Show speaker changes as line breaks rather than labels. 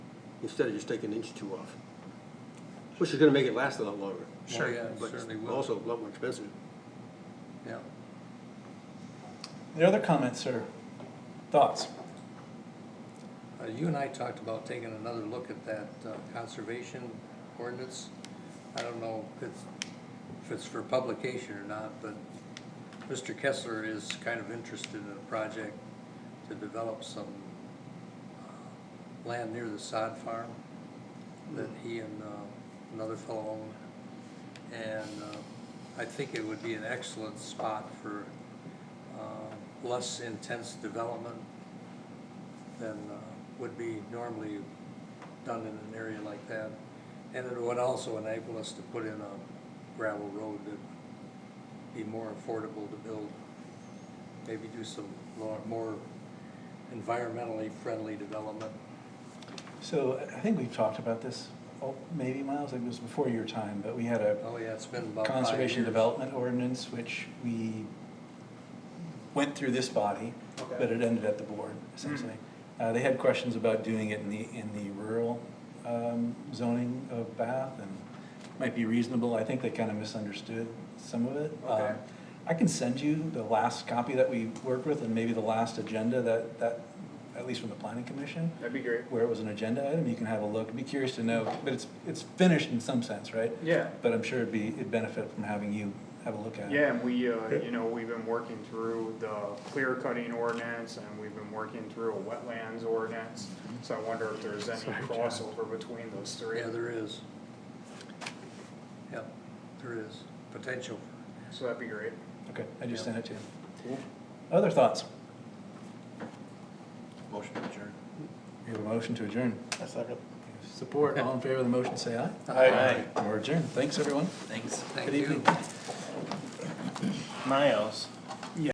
instead of just taking an inch or two off. Which is gonna make it last a lot longer.
Sure,
Oh, yeah,
but
certainly will.
Also a lot more expensive.
Yeah.
The other comments or thoughts?
Uh, You and I talked about taking another look at that uh, conservation ordinance. I don't know if it's, if it's for publication or not, but Mr. Kessler is kind of interested in a project to develop some uh, land near the sod farm that he and uh, another fellow own. And uh, I think it would be an excellent spot for uh, less intense development than uh, would be normally done in an area like that. And it would also enable us to put in a gravel road that would be more affordable to build. Maybe do some lo- more environmentally friendly development.
So I think we've talked about this, oh, maybe Miles, it was before your time, but we had a
Oh, yeah, it's been about five years.
conservation development ordinance, which we went through this body,
Okay.
but it ended at the board essentially.
Hmm.
Uh, they had questions about doing it in the, in the rural, um, zoning of Bath and might be reasonable. I think they kind of misunderstood some of it.
Okay.
Um, I can send you the last copy that we worked with and maybe the last agenda that, that, at least from the planning commission
That'd be great.
where it was an agenda item, you can have a look, I'd be curious to know, but it's, it's finished in some sense, right?
Yeah.
But I'm sure it'd be, it'd benefit from having you have a look at it.
Yeah, and we, uh, you know, we've been working through the clear cutting ordinance and we've been working through a wetlands ordinance. So I wonder if there's any
Sorry, John.
crossover between those three.
Yeah, there is. Yep, there is potential.
So that'd be great.
Okay, I just sent it to you.
Cool.
Other thoughts?
Motion to adjourn.
We have a motion to adjourn.
I second.
Support, all in favor of the motion, say aye.
Aye.
Or adjourn, thanks, everyone.
Thanks.
Thank
Good
you.
evening.
Miles.